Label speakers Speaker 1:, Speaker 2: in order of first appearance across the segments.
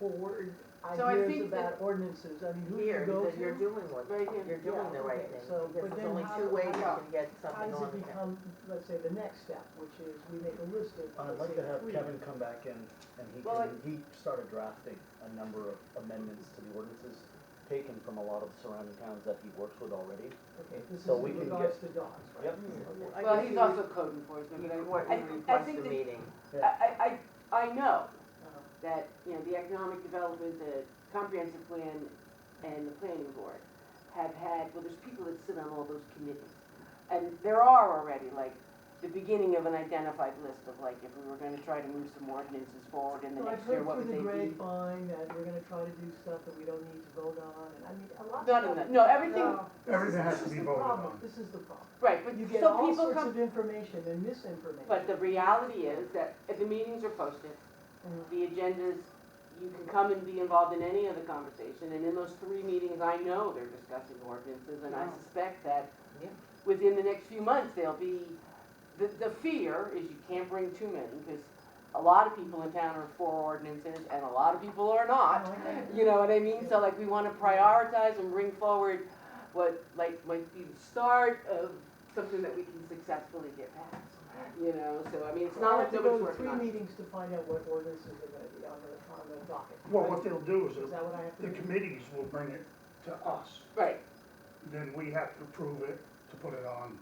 Speaker 1: forward
Speaker 2: So I
Speaker 1: ideas
Speaker 2: think that-
Speaker 1: about ordinances, I mean, who do you
Speaker 3: Here,
Speaker 1: go
Speaker 3: because you're
Speaker 1: to?
Speaker 3: doing one,
Speaker 2: Right here.
Speaker 3: you're doing the right thing,
Speaker 1: So, but
Speaker 3: because
Speaker 1: then
Speaker 3: there's only
Speaker 1: how-
Speaker 3: two ways you
Speaker 2: how-
Speaker 3: can get
Speaker 1: How
Speaker 3: something
Speaker 1: does
Speaker 3: on the
Speaker 1: it
Speaker 3: town.
Speaker 1: become, let's say, the next step, which is we make a list of.
Speaker 4: I'd
Speaker 1: let's
Speaker 4: like
Speaker 1: say,
Speaker 4: to have
Speaker 1: three.
Speaker 4: Kevin come back in, and he
Speaker 2: Well,
Speaker 4: can, he started drafting a number of amendments to the ordinances taken from a lot of surrounding towns that he works with already.
Speaker 1: Okay, this is
Speaker 4: so we
Speaker 1: in
Speaker 4: can
Speaker 1: regards
Speaker 4: get-
Speaker 1: to dogs, right?
Speaker 4: Yep.
Speaker 3: I
Speaker 2: Well,
Speaker 3: guess
Speaker 2: he's
Speaker 3: you-
Speaker 2: also code enforcement, but I,
Speaker 3: What
Speaker 2: I
Speaker 3: you
Speaker 2: think- I
Speaker 3: request
Speaker 2: think
Speaker 3: the
Speaker 2: that-
Speaker 3: meeting.
Speaker 2: I, I, I know
Speaker 1: Uh-huh.
Speaker 2: that, you know, the economic development, the comprehensive plan and the planning board have had, well, there's people that sit on all those committees. And there are already, like, the beginning of an identified list of like, if we were gonna try to move some ordinances forward in the
Speaker 1: So I've
Speaker 2: next year,
Speaker 1: heard
Speaker 2: what would
Speaker 1: through
Speaker 2: they
Speaker 1: the
Speaker 2: be?
Speaker 1: grapevine that we're gonna try to do stuff that we don't need to vote on, and I mean, a lot of.
Speaker 2: None of
Speaker 1: stuff-
Speaker 2: that, no, everything,
Speaker 1: No, this is-
Speaker 5: Everything has
Speaker 1: this
Speaker 5: to
Speaker 1: is
Speaker 5: be
Speaker 1: the
Speaker 5: voted
Speaker 1: problem.
Speaker 5: on.
Speaker 1: This is the problem.
Speaker 2: right, but,
Speaker 1: You get
Speaker 2: so
Speaker 1: all
Speaker 2: people
Speaker 1: sorts
Speaker 2: come,
Speaker 1: of information and misinformation.
Speaker 2: but the reality is that if the meetings are posted,
Speaker 1: Mm.
Speaker 2: the agendas, you can come and be involved in any other conversation, and in those three meetings, I know they're discussing ordinances, and I
Speaker 3: Yeah.
Speaker 2: suspect that
Speaker 3: Yeah.
Speaker 2: within the next few months, there'll be, the, the fear is you can't bring too many, because a lot of people in town are for ordinances, and a lot of people are not.
Speaker 1: Oh,
Speaker 2: You know what I mean? So like, we wanna prioritize and bring forward what like might be the start of something that we can successfully get passed, you know? So I mean, it's not like nobody's
Speaker 1: I have to
Speaker 2: working on
Speaker 1: go to three
Speaker 2: it.
Speaker 1: meetings to find out what ordinances are gonna be on the, on the docket.
Speaker 5: Well, what they'll do is,
Speaker 1: Is that what I have to
Speaker 5: the
Speaker 1: do?
Speaker 5: committees will bring it to us,
Speaker 2: Right,
Speaker 5: then we have to approve it to put it on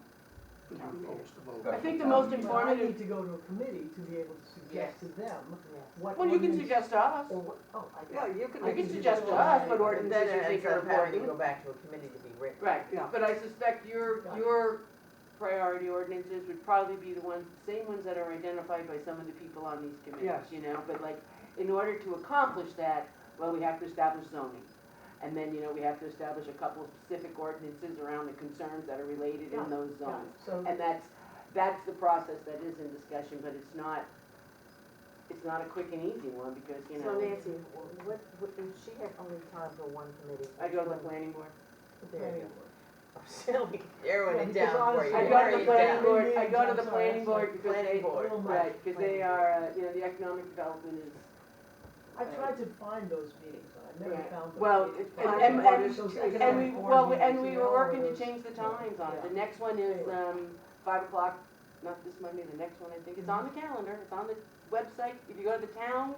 Speaker 5: the new folks to vote.
Speaker 2: I think the most
Speaker 1: But I
Speaker 2: informative,
Speaker 1: need to go to a committee to be able to suggest
Speaker 3: Yes.
Speaker 1: to them what.
Speaker 2: well, you can
Speaker 1: ordinance-
Speaker 2: suggest to us,
Speaker 1: Or what, oh, I
Speaker 3: Well,
Speaker 1: got it.
Speaker 3: you can.
Speaker 1: I
Speaker 2: you
Speaker 1: can
Speaker 2: can
Speaker 1: do
Speaker 2: suggest to
Speaker 1: that. But
Speaker 2: us what
Speaker 3: But then
Speaker 2: ordinances you
Speaker 3: it
Speaker 2: think
Speaker 3: ends
Speaker 2: are
Speaker 3: up having to
Speaker 2: important.
Speaker 3: go back to a committee to be written.
Speaker 2: Right,
Speaker 1: Yeah.
Speaker 2: but I suspect your,
Speaker 1: Got it.
Speaker 2: your priority ordinances would probably be the ones, same ones that are identified by some of the people on these committees, you know? But like, in order to accomplish that, well, we have to establish zoning. And then, you know, we have to establish a couple of specific ordinances around the concerns that are related
Speaker 1: Yeah,
Speaker 2: in those
Speaker 1: Got
Speaker 2: zones.
Speaker 1: it. So,
Speaker 2: And that's, that's the process that is in discussion, but it's not, it's not a quick and easy one because, you
Speaker 3: So
Speaker 2: know,
Speaker 3: Nancy, what, what, if she had only time for one committee.
Speaker 2: I go to the
Speaker 3: which one-
Speaker 2: planning board.
Speaker 1: the
Speaker 3: There you
Speaker 1: planning
Speaker 3: go.
Speaker 1: board.
Speaker 3: Still be narrowing
Speaker 1: Yeah,
Speaker 3: it
Speaker 1: because
Speaker 3: down for
Speaker 1: honestly-
Speaker 3: you.
Speaker 2: I go to
Speaker 3: narrow
Speaker 2: the
Speaker 3: it
Speaker 2: planning
Speaker 3: down.
Speaker 2: board, I go to
Speaker 1: I'm
Speaker 2: the
Speaker 1: sorry, I'm
Speaker 2: planning board
Speaker 1: sorry.
Speaker 2: because they,
Speaker 3: Planning board.
Speaker 1: Oh, my.
Speaker 2: right, because they are, uh, you know, the economic development is,
Speaker 1: I tried to find those meetings, but I never
Speaker 2: Right.
Speaker 1: found them.
Speaker 2: Well,
Speaker 1: Those
Speaker 2: and-
Speaker 1: planning
Speaker 2: and-
Speaker 1: board
Speaker 2: and-
Speaker 1: issues, those
Speaker 2: and we,
Speaker 1: economic board
Speaker 2: well, we-
Speaker 1: meetings,
Speaker 2: and we
Speaker 1: you know,
Speaker 2: were working
Speaker 1: all
Speaker 2: to
Speaker 1: those-
Speaker 2: change the times on it. The next one is, um, five o'clock, not this Monday, the next one, I think, it's on the calendar, it's on the website, if you go to the town,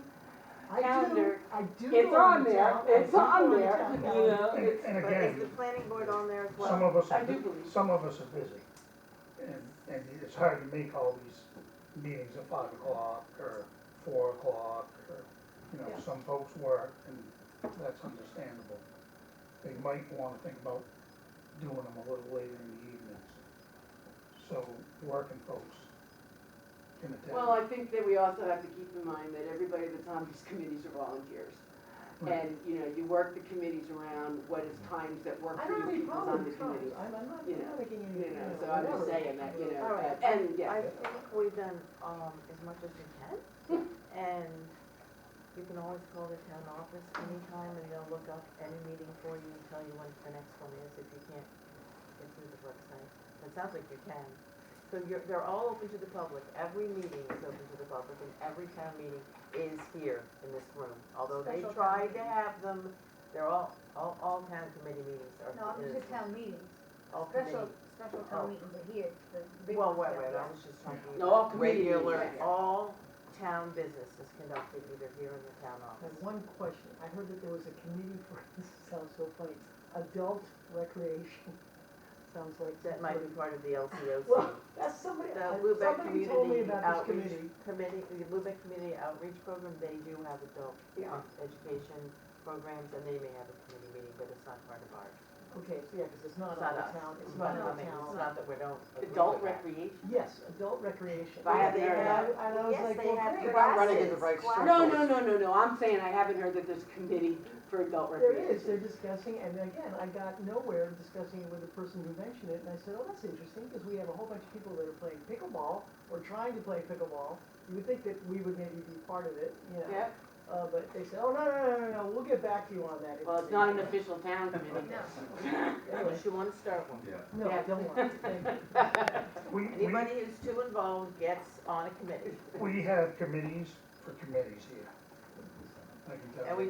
Speaker 1: I do,
Speaker 2: calendar.
Speaker 1: I do.
Speaker 2: it's
Speaker 1: go
Speaker 2: on
Speaker 1: the
Speaker 2: there,
Speaker 1: town- I
Speaker 2: it's
Speaker 1: do go
Speaker 2: on
Speaker 1: the
Speaker 2: there,
Speaker 1: town
Speaker 2: you
Speaker 1: calendar.
Speaker 2: know,
Speaker 5: And
Speaker 2: it's,
Speaker 5: and
Speaker 3: But is the
Speaker 5: again,
Speaker 3: planning board on there as well?
Speaker 5: some of us,
Speaker 2: I
Speaker 5: are
Speaker 2: do
Speaker 5: bu-
Speaker 2: believe.
Speaker 5: some of us are busy, and, and it's hard to make all these meetings at five o'clock or four o'clock, or, you know,
Speaker 1: Yeah.
Speaker 5: some folks work, and that's understandable. They might wanna think about doing them a little later in the evenings, so working folks can attend.
Speaker 2: Well, I think that we also have to keep in mind that everybody that's on these committees are volunteers.
Speaker 5: Right.
Speaker 2: And, you know, you work the committees around what is times that work
Speaker 1: I
Speaker 2: for
Speaker 1: don't have
Speaker 2: your
Speaker 1: any
Speaker 2: people on
Speaker 1: problem
Speaker 2: the
Speaker 1: with times,
Speaker 2: committees.
Speaker 1: I'm, I'm not,
Speaker 2: you
Speaker 1: I'm
Speaker 2: know,
Speaker 1: not making any,
Speaker 2: You
Speaker 1: you
Speaker 2: know,
Speaker 1: know,
Speaker 2: so I'm
Speaker 1: whatever.
Speaker 2: just saying that, you know,
Speaker 3: All right.
Speaker 2: that- and, yeah.
Speaker 3: um, I think we've done, um, as much as we can, and you can always call the town office anytime, and they'll look up any meeting for you and tell you when the next one is, if you can't get through the website. It sounds like you can. So you're, they're all open to the public, every meeting is open to the public, and every town meeting is here in this room. Although they
Speaker 6: Special town
Speaker 3: tried to
Speaker 6: meeting.
Speaker 3: have them, they're all, all, all town committee meetings are.
Speaker 6: No, I'm
Speaker 3: in
Speaker 6: just
Speaker 3: this room.
Speaker 6: town meetings,
Speaker 3: All
Speaker 6: special,
Speaker 3: committee.
Speaker 6: special
Speaker 3: Oh.
Speaker 6: town meetings are here, the big
Speaker 3: Well,
Speaker 6: ones
Speaker 3: wait,
Speaker 6: down
Speaker 3: wait,
Speaker 6: there.
Speaker 3: I was just talking
Speaker 2: No, all
Speaker 3: about
Speaker 2: committee meetings,
Speaker 3: regular,
Speaker 2: right.
Speaker 3: all town business is conducted either here in the town
Speaker 1: I have
Speaker 3: office.
Speaker 1: one question, I heard that there was a committee for, this sounds so funny, adult recreation, sounds like.
Speaker 3: That might be part of the LCOC.
Speaker 1: Well, that's somebody, I-
Speaker 3: The Lubec
Speaker 1: somebody told me
Speaker 3: Community
Speaker 1: about this
Speaker 3: Outreach
Speaker 1: committee.
Speaker 3: Committee, the Lubec Community Outreach Program, they do have adult uh,
Speaker 2: Yeah.
Speaker 3: education programs, and they may have a committee meeting, but it's not part of ours.
Speaker 1: Okay, so yeah, because it's not
Speaker 3: It's
Speaker 1: on
Speaker 3: not
Speaker 1: the
Speaker 3: us.
Speaker 1: town, it's
Speaker 3: It's
Speaker 1: not
Speaker 3: not,
Speaker 1: on the
Speaker 3: nothing. it's
Speaker 1: town.
Speaker 3: not that we don't agree
Speaker 2: Adult
Speaker 3: with that.
Speaker 2: recreation?
Speaker 1: Yes, adult recreation.
Speaker 2: But I
Speaker 3: Yeah,
Speaker 2: haven't
Speaker 3: they
Speaker 2: heard
Speaker 3: have-
Speaker 2: that.
Speaker 1: And I was
Speaker 3: Yes,
Speaker 1: like,
Speaker 3: they
Speaker 1: well,
Speaker 3: have
Speaker 1: great.
Speaker 3: classes.
Speaker 4: running into the right
Speaker 3: classes.
Speaker 4: circle.
Speaker 2: No, no, no, no, no, I'm saying I haven't heard that there's a committee for adult
Speaker 1: There is,
Speaker 2: recreation.
Speaker 1: they're discussing, and again, I got nowhere discussing it with the person who mentioned it, and I said, oh, that's interesting, because we have a whole bunch of people that are playing pickleball, or trying to play pickleball. You would think that we would maybe be part of it, you know?
Speaker 2: Yeah,
Speaker 1: Uh, but they said, oh, no, no, no, no, no, we'll get back to you on that.
Speaker 2: well, it's not an official town committee.
Speaker 6: No,
Speaker 1: Anyway,
Speaker 3: Unless you wanna start one.
Speaker 1: No, I don't want to, thank you.
Speaker 5: We, we,
Speaker 3: Anybody who's too involved gets on a committee.
Speaker 5: we have committees for committees here. I can tell
Speaker 3: And
Speaker 5: you.
Speaker 3: we